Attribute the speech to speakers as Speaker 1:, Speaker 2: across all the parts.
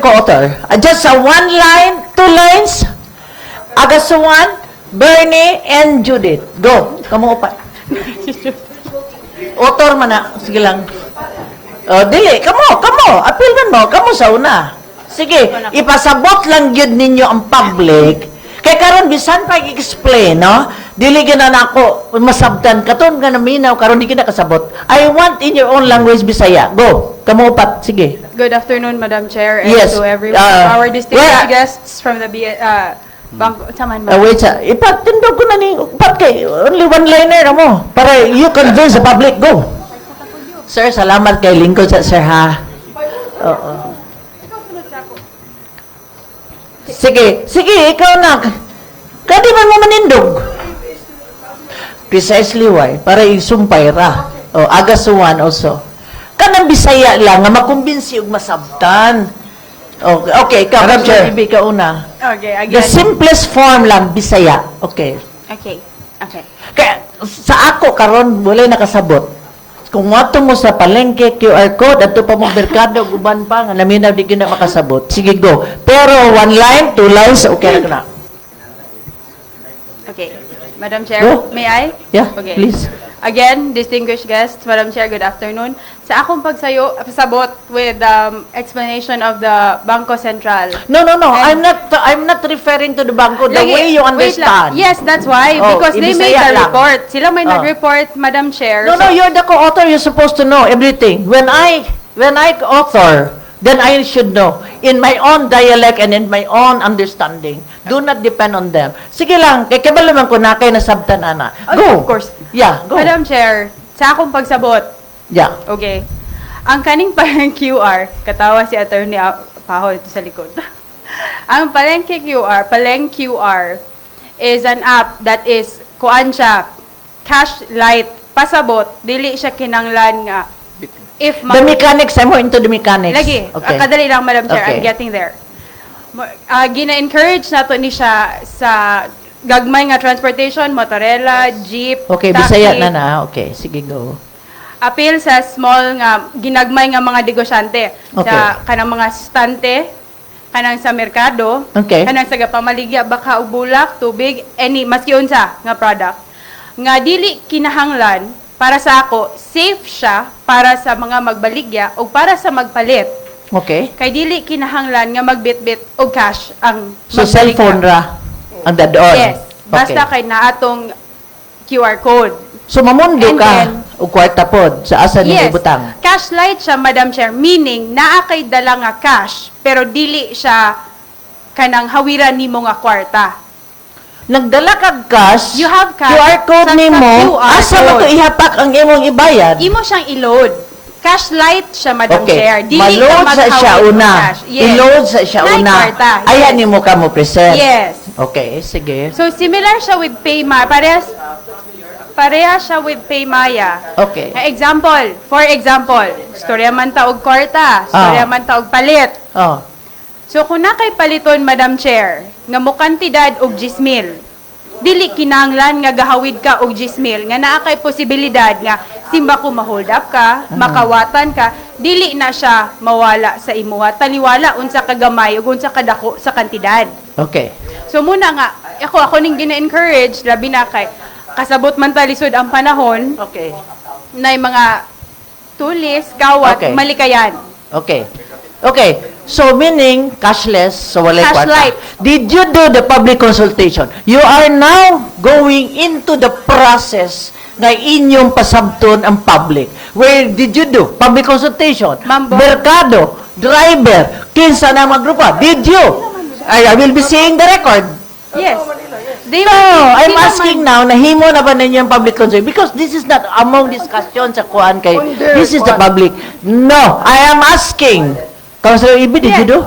Speaker 1: ko, author. Uh, Just a one line, two lines. Agasuan, Bernie, and Judith. Go. Kamu upat. author man na. Sige lang. Oh, dili. Kamu, kamu. Appeal man mo. Kamu sa una. Sige. Ipasabot lang yun ninyo ang public. Kaya karon bisan pa i-explain, no? Dili na nako masabtan katon ka na minaw karon di kita kasabot. I want in your own language Bisaya. Go. Kamu upat. Sige.
Speaker 2: Good afternoon, Madam Chair, and
Speaker 1: Yes,
Speaker 2: to everyone.
Speaker 1: uh,
Speaker 2: Our
Speaker 1: where-
Speaker 2: distinguished guests from the B- uh, Bangko, Taman
Speaker 1: Uh, wait, sa, ipatindog ko na ni, upat kay, only one-liner mo, para you convince the public, go. Sir, salamat kay lingkod sa sir, ha? Oo. Sige, sige, ikaw na. Kadi man mo manindog. Precisely why, para isumpay ra. O, agasuan also. Kanang bisaya lang, nga makumbinsi og masabtan. Okay, okay ikaw,
Speaker 3: Madam
Speaker 1: Ma'am
Speaker 3: Chair.
Speaker 1: Bibi, ka una.
Speaker 2: Okay,
Speaker 1: The
Speaker 2: again.
Speaker 1: simplest form lang, Bisaya. Okay.
Speaker 2: Okay, okay.
Speaker 1: Kaya sa ako karon wala nakasabot. Kung wato mo sa palengke QR code at pa mo merkado guban pa nga naminaw di gyud na makasabot. Sige go. Pero one line, two lines, okay na. ka na.
Speaker 2: Okay. Madam Chair,
Speaker 1: Go.
Speaker 2: may I?
Speaker 1: Yeah,
Speaker 2: Okay.
Speaker 1: please.
Speaker 2: Again, distinguished guests, Madam Chair, good afternoon. Sa akong pagsayo, pasabot with um, explanation of the Bangko Sentral.
Speaker 1: No, no, no.
Speaker 2: And-
Speaker 1: I'm not I'm not referring to the bangko Oh, the
Speaker 2: Lagi-
Speaker 1: way you
Speaker 2: wait lang.
Speaker 1: understand.
Speaker 2: Yes, that's why.
Speaker 1: Oh,
Speaker 2: because they made
Speaker 1: ibisaya
Speaker 2: the
Speaker 1: lang.
Speaker 2: report. Sila may
Speaker 1: Oh.
Speaker 2: nag-report, Madam Chair.
Speaker 1: No, no,
Speaker 2: So-
Speaker 1: you're the co-author. You're supposed to know everything. When I, when I author, then I should know in my own dialect and in my own understanding. Do not depend on them. Sige lang, kay kabalo man ko na kay nasabtan ana.
Speaker 2: Okay,
Speaker 1: Go.
Speaker 2: of course.
Speaker 1: Yeah, go.
Speaker 2: Madam Chair, sa akong pagsabot,
Speaker 1: Yeah.
Speaker 2: Okay. Ang kaning parang QR, katawa si Attorney A- Paho ito sa likod. Ang Palengke QR, Paleng QR, is an app that is, kuan siya, cash light, pasabot, dili siya kinanglan nga. If ma-
Speaker 1: The mechanics, I'm more into the mechanics.
Speaker 2: Lagi.
Speaker 1: Okay.
Speaker 2: Ah, kadali lang, Madam Chair.
Speaker 1: Okay.
Speaker 2: I'm getting there. Ma- ah, gina-encourage na to ni siya sa gagmay nga transportation, motorela, jeep,
Speaker 1: Okay,
Speaker 2: taxi,
Speaker 1: Bisaya na na. Okay, sige, go.
Speaker 2: appeal sa small nga ginagmay nga mga negosyante
Speaker 1: Okay.
Speaker 2: sa kanang mga stante kanang sa merkado
Speaker 1: Okay.
Speaker 2: kanang sa gapamaligya baka ug bulak tubig any maski unsa nga product nga dili kinahanglan para sa ako safe siya para sa mga magbaligya o para sa magpalit
Speaker 1: Okay.
Speaker 2: kay dili kinahanglan nga magbitbit og cash ang
Speaker 1: So,
Speaker 2: magbaligya.
Speaker 1: cellphone ra ang dadoon.
Speaker 2: yes basta
Speaker 1: Okay.
Speaker 2: kay naatong QR code
Speaker 1: So, mamundo
Speaker 2: And
Speaker 1: ka
Speaker 2: then-
Speaker 1: o kwarta pod sa asa ni ibutang.
Speaker 2: cash light siya, Madam Chair. Meaning, naa kay dala nga cash, pero dili siya kanang hawiran nimo nga kwarta.
Speaker 1: Nagdala kag cash.
Speaker 2: You have cash.
Speaker 1: QR code
Speaker 2: Sa- sa
Speaker 1: nimo.
Speaker 2: QR
Speaker 1: Asa mo to
Speaker 2: code.
Speaker 1: ihapak ang imong ibayad?
Speaker 2: Imo siyang i-load. Cash light siya, Madam Chair.
Speaker 1: Okay.
Speaker 2: Dili
Speaker 1: Maload
Speaker 2: ka
Speaker 1: sa siya
Speaker 2: maghawid ng
Speaker 1: una.
Speaker 2: cash. Yes.
Speaker 1: I-load sa siya
Speaker 2: Like
Speaker 1: una.
Speaker 2: kwarta. Yes.
Speaker 1: Ayan nimo ka mo present.
Speaker 2: Yes.
Speaker 1: Okay, sige.
Speaker 2: So, similar siya with Paymaya. Parehas, pareha siya with Paymaya.
Speaker 1: Okay.
Speaker 2: Eh, Example, for example, storya man taog kwarta,
Speaker 1: Ah.
Speaker 2: storya man taog palit.
Speaker 1: Oh.
Speaker 2: So kung na kay paliton Madam Chair nga mo kantidad og 10,000 dili kinanglan nga gahawid ka og 10,000 nga naa kay posibilidad nga simba ko ma-hold up ka,
Speaker 1: Mm.
Speaker 2: makawatan ka, dili na siya mawala sa imuha taliwala unsa ka gamay ug unsa ka dako sa kantidad.
Speaker 1: Okay.
Speaker 2: So muna nga ako ako ning gina-encourage labi na kay kasabot man ta lisod ang panahon
Speaker 1: Okay.
Speaker 2: nay mga tulis, kawat,
Speaker 1: Okay.
Speaker 2: malikayan.
Speaker 1: Okay. Okay. So meaning cashless, so wala
Speaker 2: Cash
Speaker 1: kwarta.
Speaker 2: light.
Speaker 1: Did you do the public consultation? You are now going into the process na inyong pasabton ang public. Where did you do? Public consultation.
Speaker 2: Ma'am Bo-
Speaker 1: Merkado, driver, kinsa na mga grupo. Did you? I, I will be seeing the record.
Speaker 2: Yes. They
Speaker 1: No,
Speaker 2: will-
Speaker 1: I'm
Speaker 2: sila man-
Speaker 1: asking now, nahimo na ba ninyo ang public concern? Because this is not among discussion sa kuan kay, this is the public. No, I am asking. Councilor Ibi, did you do?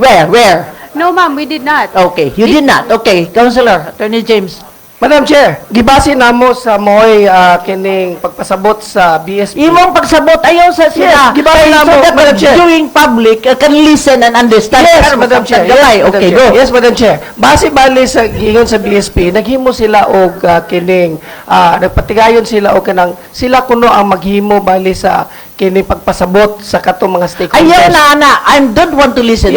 Speaker 1: Where, where?
Speaker 2: No, ma'am, we did not.
Speaker 1: Okay, you did not. Okay, Councilor, Attorney James.
Speaker 3: Madam Chair, gibase namo sa moy ah, kining pagpasabot sa BSP.
Speaker 1: Imong pagsabot ayaw sa sila.
Speaker 3: Yes, gibawal
Speaker 1: Kay
Speaker 3: na
Speaker 1: so
Speaker 3: mo,
Speaker 1: that
Speaker 3: Madam Chair.
Speaker 1: Viewing public uh, can listen and understand.
Speaker 3: Yes,
Speaker 1: Karon,
Speaker 3: Madam Chair.
Speaker 1: masabtan gamay.
Speaker 3: Yes, Madam
Speaker 1: Okay,
Speaker 3: Chair.
Speaker 1: go.
Speaker 3: Yes, Madam Chair. Base bali sa gingon sa BSP, naghimo sila og ah, kining ah, nagpatigayon sila og kanang sila kuno ang maghimo bali sa kining pagpasabot sa katong mga stakeholders.
Speaker 1: Ayaw na, ana. I don't want to listen.